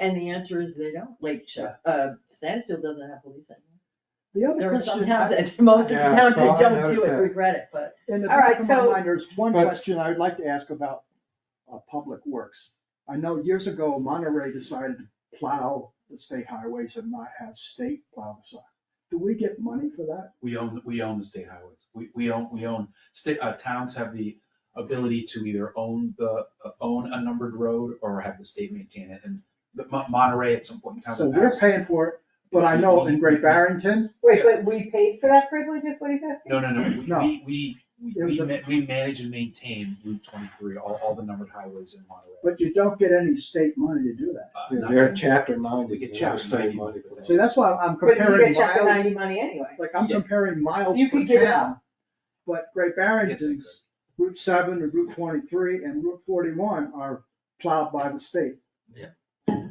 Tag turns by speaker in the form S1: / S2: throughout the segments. S1: And the answer is they don't, like, Ch- uh, Stansfield doesn't have police anymore.
S2: The other
S1: There are some
S2: question,
S1: towns
S2: I-
S1: that, most of the
S3: Yeah,
S1: towns
S3: so
S1: that
S3: I
S1: don't do it
S3: noticed that.
S1: regret it, but
S2: in the
S4: All
S2: back
S4: right,
S2: of my
S4: so-
S2: mind, there's one
S3: But-
S2: question I would like to ask about, uh, public works. I know years ago Monterey decided to plow the state highways and not have state plow the side. Do we get money for that?
S5: We own, we own the state highways. We, we own, we own, state, uh, towns have the ability to either own the, uh, own a numbered road or have the state maintain it. And the Mon- Monterey at some point in time.
S2: So we're
S5: passed-
S2: paying for it, but I know in Great Barrington,
S4: Wait, but we paid for that privilege, is what he's asking?
S5: No, no, no,
S2: No.
S5: we, we, we,
S2: It was
S5: we,
S2: a-
S5: ma- we manage and maintain Route twenty-three, all, all the numbered highways in Monterey.
S2: but you don't get any state money to do that.
S5: Uh,
S2: Yeah,
S5: not-
S3: They're chapter ninety.
S5: We get
S3: they have
S5: chapter 90.
S3: state money for that.
S2: See, that's why I'm
S4: But you
S2: comparing
S4: get chapter
S2: miles,
S4: ninety money anyway.
S2: like I'm
S5: Yeah.
S2: comparing miles
S4: You
S2: per
S4: could give it
S2: town. But Great
S5: Yes,
S2: Barrington's
S5: exactly.
S2: Route seven and Route twenty-three and Route forty-one are plowed by the state.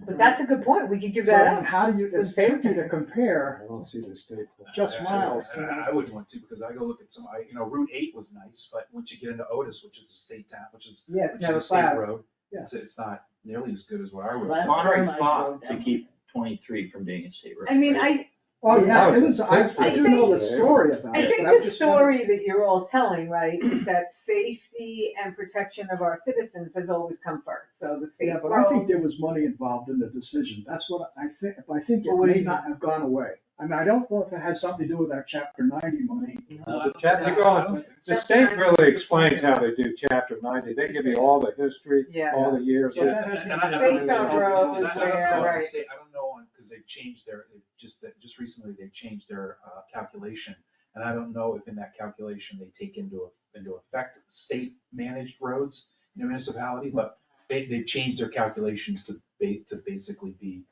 S4: But that's a good point, we could give
S2: So
S4: that
S2: I mean,
S4: up.
S2: how do you, it's
S4: Who's paying
S2: tricky
S4: for
S2: to
S4: it?
S2: compare,
S3: I don't see the state.
S2: Just
S5: Actually,
S2: miles.
S5: and I I wouldn't want to, because I go look at some, I, you know, Route eight was nice, but once you get into Otis, which is a state town, which is,
S4: Yes,
S5: which is a state road,
S2: Yeah.
S5: it's, it's not nearly as good as what our road.
S1: last
S5: is.
S6: Monterey
S1: time I drove
S6: fought to
S1: down-
S6: keep twenty-three from being a state road.
S4: I mean,
S6: right?
S4: I,
S2: oh yeah, it was, I,
S3: That's
S2: I do know the story about
S4: I
S2: it,
S4: think
S2: but I was
S4: the
S2: just wondering-
S4: story that you're all telling, right, is that safety and protection of our citizens has always come first, so the state
S2: Yeah, but I think
S4: road.
S2: there was money involved in the decision, that's what I think, I think it
S4: Well, what do
S2: may
S4: you-
S2: not have gone away. I mean, I don't know if it has something to do with our chapter ninety money,
S5: No, I
S3: The
S5: don't-
S3: chap-
S5: no,
S3: they go
S5: I
S3: on-
S5: don't think so.
S3: The state really explains how they do chapter ninety. They give you all the history,
S4: Yeah.
S3: all the years.
S2: So that-
S3: Well,
S2: has
S5: And I- I don't
S4: Based
S5: know-
S4: on
S5: I don't
S4: roads,
S5: know- I don't
S4: yeah,
S5: know on the
S4: right.
S5: state- I don't know on, because they've changed their, they've just, that- just recently, they changed their uh, calculation. And I don't know if in that calculation, they take into, into effect state-managed roads in a municipality, but they, they've changed their calculations to ba, to basically be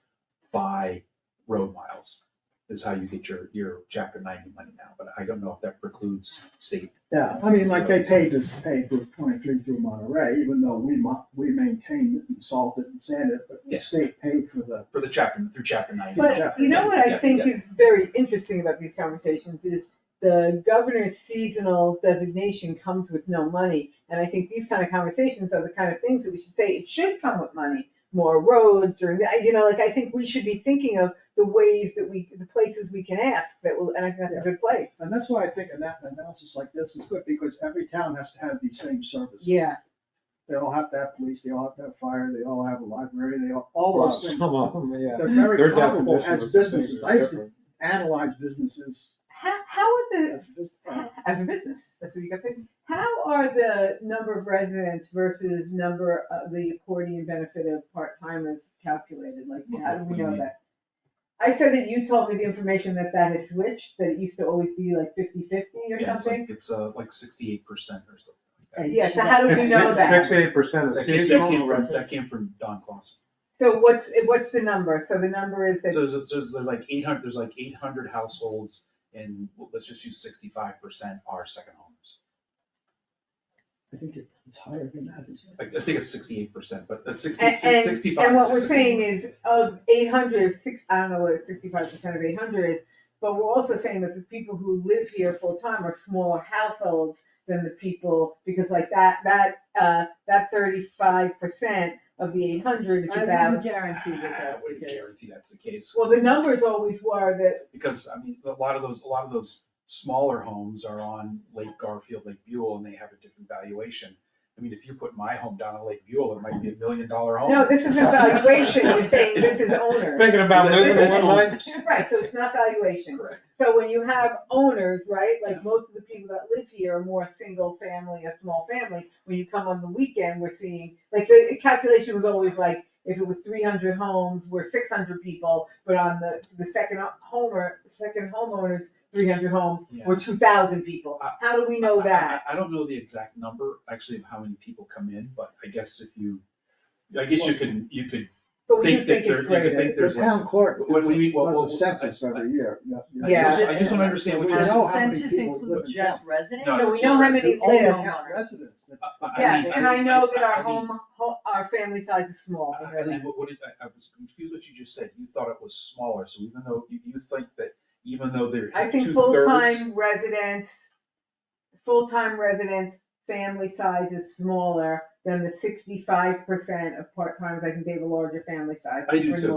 S5: by road miles, is how you get your, your chapter ninety money now, but I don't know if that precludes state.
S2: yeah, I mean, like they paid us, paid for twenty-three through Monterey, even though we mo- we maintained it and solved it and sanded it, but the
S5: Yeah.
S2: state paid for the,
S5: For the chapter, through chapter ninety.
S4: But you know what I
S5: Yeah,
S4: think
S5: yeah.
S4: is very interesting about these conversations is the governor's seasonal designation comes with no money. And I think these kind of conversations are the kind of things that we should say, it should come with money, more roads during the, you know, like I think we should be thinking of the ways that we, the places we can ask that will, and I think that's a good place.
S2: and that's why I think an a- analysis like this is good, because every town has to have these same services.
S4: Yeah,
S2: They all have to have police, they all have to have fire, they all have a library, they all, all those things.
S3: Some of them, yeah.
S2: They're very
S3: Their
S2: comparable
S3: definition
S2: as
S3: of business
S2: businesses.
S3: is
S2: I used to
S3: different.
S2: analyze businesses
S4: how, how are the,
S2: as business.
S4: as a business, that's what you got paid. How are the number of residents versus number of the accordion benefit of part-timers calculated? Like, how do
S5: What
S4: we
S5: do you
S4: know
S5: mean?
S4: that? I said that you told me the information that that has switched, that it used to always be like 50-50 or
S5: Yeah, it's like-
S4: something.
S5: It's uh, like sixty-eight percent or something like that.
S1: And
S4: Yeah,
S1: she
S4: so how do
S1: doesn't-
S4: we know that?
S3: Sixty-eight percent
S5: That
S3: of
S5: came, that
S3: seasonal.
S5: came from, that came from Don Clausen.
S4: So what's, what's the number? So the number is
S5: So
S4: that,
S5: there's, there's like eight hundred, there's like eight hundred households and well, let's just use sixty-five percent are second homes.
S2: I think it's higher than that, isn't it?
S5: Like, I think it's sixty-eight percent, but that's sixty,
S4: and,
S5: sixty-five.
S4: and, and what
S5: is
S4: we're
S5: just a
S4: saying
S5: number.
S4: is of 800, six, I don't know what sixty-five percent of eight hundred is, but we're also saying that the people who live here full-time are smaller households than the people, because like that, that, uh, that thirty-five percent of the eight hundred is
S1: I wouldn't
S4: about,
S1: guarantee
S5: I
S1: that that's
S5: wouldn't
S1: the case.
S5: guarantee that's the case.
S4: well, the numbers always were that,
S5: Because, I mean, a lot of those, a lot of those smaller homes are on Lake Garfield, Lake Buell, and they have a different valuation. I mean, if you put my home down on Lake Buell, it might be a million dollar home.
S4: no, this isn't valuation, you're saying this is owners.
S3: Thinking about moving
S5: That's
S3: in one night?
S5: owners.
S4: Right, so it's not valuation.
S5: Correct.
S4: So when you have owners, right, like most of the people that live here are more single family, a small family, when you come on the weekend, we're seeing, like, the calculation was always like, if it was three hundred homes, we're six hundred people, but on the, the second homer, second homeowners, three hundred homes,
S5: Yeah. Uh,
S4: we're two thousand people.
S5: I-
S4: How do we know
S5: I-
S4: that?
S5: I I don't know the exact number, actually, of how many people come in, but I guess if you, I guess you can, you could
S4: But we do
S5: think that
S4: think
S5: there,
S4: it's
S5: you could
S4: greater.
S5: think
S2: The
S5: there's. like-
S2: town clerk
S5: When we- well,
S2: does
S5: well,
S2: a census
S5: I-
S2: every year. Yeah,
S5: I
S4: Yeah.
S5: just, I just want to understand which
S2: We
S1: Does
S5: is.
S2: know
S1: the
S2: how many
S1: census
S2: people live
S1: include
S2: in
S1: just residents?
S5: No,
S4: No,
S5: it's
S4: we know how
S5: just
S4: many
S2: It's all
S4: live.
S2: town residents.
S5: I- I- I
S4: Yes,
S5: mean-
S4: and I know that our
S5: mean-
S4: home, ho- our family size is small.
S5: I- I mean, what, what did, I, I was confused what you just said. You thought it was smaller, so even though, you, you think that, even though they're
S4: I
S5: two
S4: think
S5: thirds.
S4: full-time residents, full-time residents family size is smaller than the sixty-five percent of part-timers, I can give a larger family size.
S5: I do
S4: for
S5: too.